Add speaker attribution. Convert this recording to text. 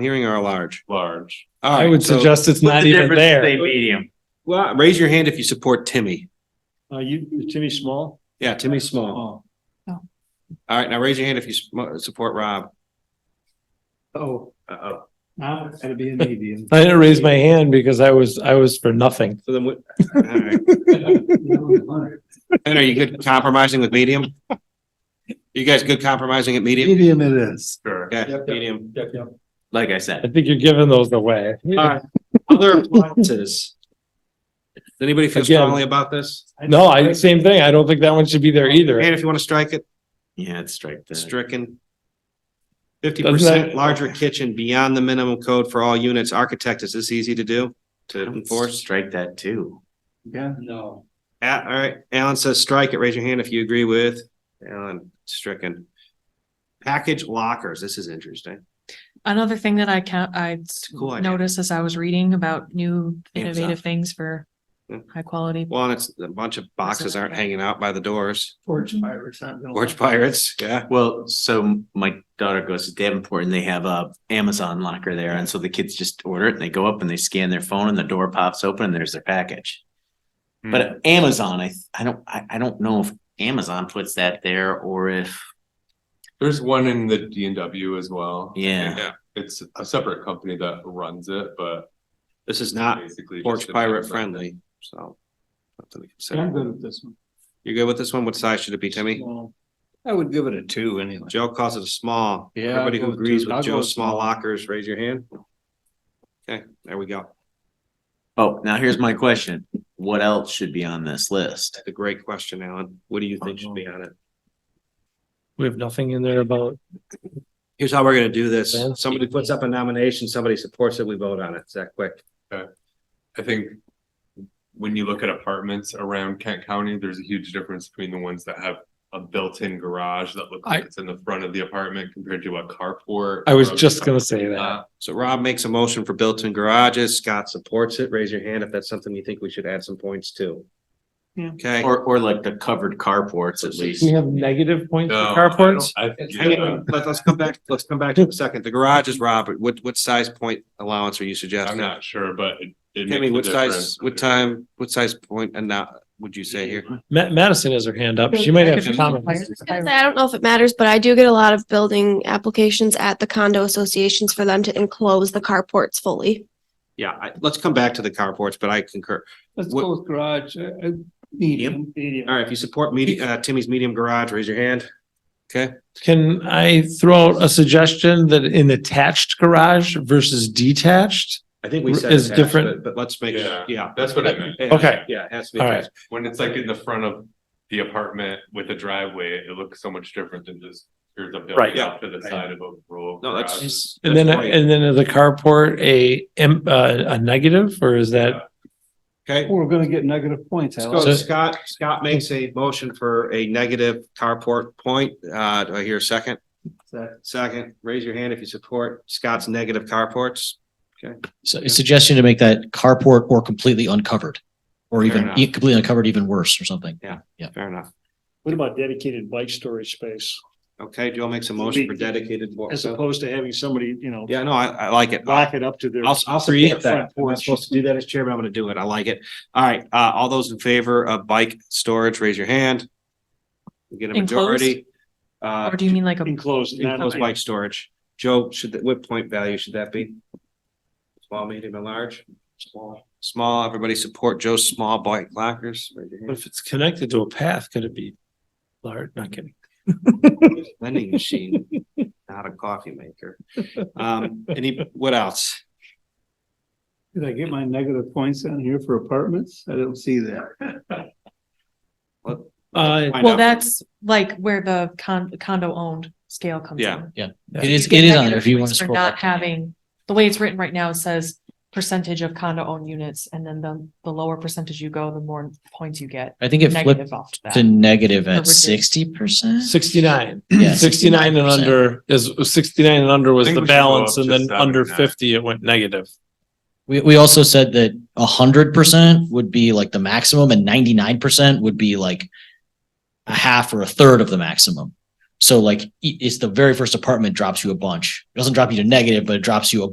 Speaker 1: hearing or a large?
Speaker 2: large.
Speaker 1: All
Speaker 3: I
Speaker 1: right,
Speaker 3: would
Speaker 1: so-
Speaker 3: suggest it's
Speaker 2: What's
Speaker 3: not
Speaker 2: the
Speaker 3: even
Speaker 2: difference
Speaker 3: there.
Speaker 2: between medium?
Speaker 1: Well, raise your hand if you support Timmy.
Speaker 3: Uh, you, Timmy Small?
Speaker 1: Yeah, Timmy Small.
Speaker 3: Oh,
Speaker 1: All right, now raise your hand if you sm- uh, support Rob.
Speaker 3: oh,
Speaker 2: Uh-oh.
Speaker 3: now it's gonna be a medium. I didn't raise my hand because I was, I was for nothing.
Speaker 1: So then what? all right. And are you good compromising with medium? You guys good compromising at medium?
Speaker 4: Medium it is.
Speaker 2: Sure.
Speaker 1: Yeah,
Speaker 3: Yep, yep.
Speaker 1: medium.
Speaker 2: Like I
Speaker 3: I
Speaker 2: said,
Speaker 3: think you're giving those away.
Speaker 1: right. Other appliances. Does anybody feel
Speaker 3: Again.
Speaker 1: strongly about this?
Speaker 3: No, I, same thing. I don't think that one should be there
Speaker 1: And
Speaker 3: either.
Speaker 1: if you want to strike it,
Speaker 2: yeah, it's strike that.
Speaker 1: stricken. Fifty
Speaker 3: Doesn't
Speaker 1: percent
Speaker 3: that-
Speaker 1: larger kitchen beyond the minimum code for all units. Architect, is this easy to do? To enforce?
Speaker 2: Strike that too.
Speaker 4: Yeah.
Speaker 3: No.
Speaker 1: A- all right, Alan says strike it. Raise your hand if you agree with Alan stricken. Package lockers, this is interesting.
Speaker 5: Another thing that I can, I
Speaker 1: a cool idea.
Speaker 5: noticed as I was reading about new
Speaker 1: Yeah, it's
Speaker 5: innovative things for
Speaker 1: Yeah.
Speaker 5: high quality.
Speaker 1: Well, and it's a bunch of boxes aren't hanging out by the doors.
Speaker 4: Porch pirates. not gonna-
Speaker 1: Porch pirates, yeah.
Speaker 2: Well, so my daughter goes to Davenport and they have a Amazon locker there. And so the kids just order it and they go up and they scan their phone and the door pops open and there's their package. But Amazon, I, I don't, I, I don't know if Amazon puts that there or if,
Speaker 6: There's one in the D and W as well.
Speaker 2: yeah.
Speaker 6: It's a separate company that runs it, but
Speaker 1: This is
Speaker 4: Ah,
Speaker 1: not
Speaker 6: basically.
Speaker 1: porch
Speaker 6: just a-
Speaker 1: pirate friendly, so. Something to
Speaker 3: I'm
Speaker 1: consider.
Speaker 3: good with this one.
Speaker 1: You're good with this one? What size should it be, Timmy?
Speaker 4: I would give it a two anyway.
Speaker 1: Joe calls it a small.
Speaker 4: Yeah, I'll
Speaker 1: Everybody who
Speaker 4: go with
Speaker 1: agrees
Speaker 4: two. I'll
Speaker 1: with
Speaker 4: go
Speaker 1: Joe's
Speaker 4: with
Speaker 1: small
Speaker 4: small.
Speaker 1: lockers, raise your hand. Okay, there we go.
Speaker 2: Oh, now here's my question. What else should be on this list?
Speaker 1: That's a great question, Alan. What do you think should be
Speaker 4: Uh-huh.
Speaker 1: on it?
Speaker 3: We have nothing in there about,
Speaker 1: Here's how we're gonna do this.
Speaker 3: Yeah.
Speaker 1: Somebody puts up a nomination, somebody supports it, we vote on it. It's that quick.
Speaker 6: I think when you look at apartments around Kent County, there's a huge difference between the ones that have a built-in garage that looks like it's in the front of the apartment compared to a carport.
Speaker 3: I was
Speaker 6: or a-
Speaker 3: just gonna say that.
Speaker 6: Uh,
Speaker 1: So Rob makes a motion for built-in garages. Scott supports it. Raise your hand if that's something you think we should add some points to. Okay,
Speaker 2: Or, or like the covered carports at least.
Speaker 3: We have negative points for
Speaker 6: no, I
Speaker 3: carports?
Speaker 6: don't- I-
Speaker 1: hang
Speaker 6: yeah,
Speaker 1: on, let- let's come back, let's come back to the second. The garage is Robert. What, what size point allowance are you
Speaker 6: I'm
Speaker 1: suggesting?
Speaker 6: not sure, but it- it.
Speaker 1: Timmy, what
Speaker 6: makes a
Speaker 1: size,
Speaker 6: difference.
Speaker 1: what time, what size point and now, would you say here?
Speaker 3: Ma- Madison has her hand up. She might have
Speaker 5: Package
Speaker 3: comments.
Speaker 5: lockers.
Speaker 7: I was gonna say, I don't know if it matters, but I do get a lot of building applications at the condo associations for them to enclose the carports fully.
Speaker 1: Yeah, I, let's come back to the carports, but I concur.
Speaker 4: Let's
Speaker 1: What-
Speaker 4: go with garage, uh, uh, medium.
Speaker 1: All right, if you support medium, uh, Timmy's medium garage, raise your hand. Okay,
Speaker 3: Can I throw out a suggestion that an attached garage versus detached?
Speaker 1: I think we said
Speaker 3: Is
Speaker 1: attached,
Speaker 3: different-
Speaker 1: but, but let's make,
Speaker 6: Yeah.
Speaker 1: yeah.
Speaker 6: That's what I meant.
Speaker 1: Yeah,
Speaker 3: Okay.
Speaker 1: Yeah, it has to be
Speaker 3: All right.
Speaker 1: attached.
Speaker 6: When it's like in the front of the apartment with a driveway, it looks so much different than just here's a
Speaker 3: Right.
Speaker 6: building off to the side of a row. of
Speaker 1: No, that's-
Speaker 6: garages.
Speaker 3: And then,
Speaker 1: That's right.
Speaker 3: and then the carport, a, em- uh, a negative, or is that?
Speaker 1: Okay,
Speaker 4: We're gonna get negative points.
Speaker 1: let's
Speaker 4: Alex.
Speaker 1: go.
Speaker 3: So-
Speaker 1: Scott, Scott makes a motion for a negative carport point. Uh, do I hear a second? Second, raise your hand if you support Scott's negative carports.
Speaker 8: So suggestion to make that carport or completely uncovered, or
Speaker 1: Fair
Speaker 8: even
Speaker 1: enough.
Speaker 8: e- completely uncovered, even worse or something.
Speaker 1: Fair enough.
Speaker 9: What about dedicated bike storage space
Speaker 1: Okay, Joe makes a motion for dedicated. bo-
Speaker 9: as opposed to having somebody, you know,
Speaker 1: Yeah, no, I, I like it.
Speaker 9: lock it up to their?
Speaker 1: I'll, I'll
Speaker 9: Create
Speaker 1: support that.
Speaker 9: front
Speaker 1: I'm not
Speaker 9: porch.
Speaker 1: supposed to do that as chairman. I'm gonna do it. I like it. All right, uh, all those in favor of bike storage, raise your hand. We get a majority. Uh,
Speaker 5: Or do you mean like a
Speaker 9: Enclosed. not-
Speaker 1: enclosed bike storage. Joe, should, that- what point value should that be? Small, medium, and large? Small. Small, everybody support Joe's small bike lockers. Raise your
Speaker 3: But
Speaker 1: hand.
Speaker 3: if it's connected to a path, could it be large? Not kidding.
Speaker 1: Vending machine, not a coffee maker. Um, any, what else?
Speaker 4: Did I get my negative points on here for apartments? I don't see that.
Speaker 3: Uh,
Speaker 1: Find
Speaker 5: Well,
Speaker 1: out.
Speaker 5: that's like where the con- condo owned scale comes
Speaker 1: Yeah.
Speaker 5: in. You
Speaker 8: It is, it
Speaker 5: get
Speaker 8: is on
Speaker 5: negative
Speaker 8: there if you want
Speaker 5: points
Speaker 8: to
Speaker 5: for
Speaker 8: scroll.
Speaker 5: Not
Speaker 8: back down.
Speaker 5: having, the way it's written right now, it says percentage of condo owned units and then the, the lower percentage you go, the more points you get.
Speaker 8: I think it flipped
Speaker 5: Negative off to
Speaker 8: to
Speaker 5: that.
Speaker 8: negative
Speaker 5: Or
Speaker 8: at
Speaker 5: reduced.
Speaker 8: sixty percent.
Speaker 3: sixty-nine.
Speaker 8: Yeah,
Speaker 3: Sixty-nine and
Speaker 8: 69%.
Speaker 3: under is, sixty-nine and under was
Speaker 6: I think
Speaker 3: the
Speaker 6: we should go
Speaker 3: balance,
Speaker 6: up
Speaker 3: and
Speaker 6: to
Speaker 3: then under
Speaker 6: 79.
Speaker 3: fifty, it went negative.
Speaker 8: We, we also said that hundred percent would be like the maximum and ninety-nine percent would be like a half or a third of the e, maximum. So like, i- it's the very first apartment drops you a bunch. It doesn't drop you to negative, but it drops you a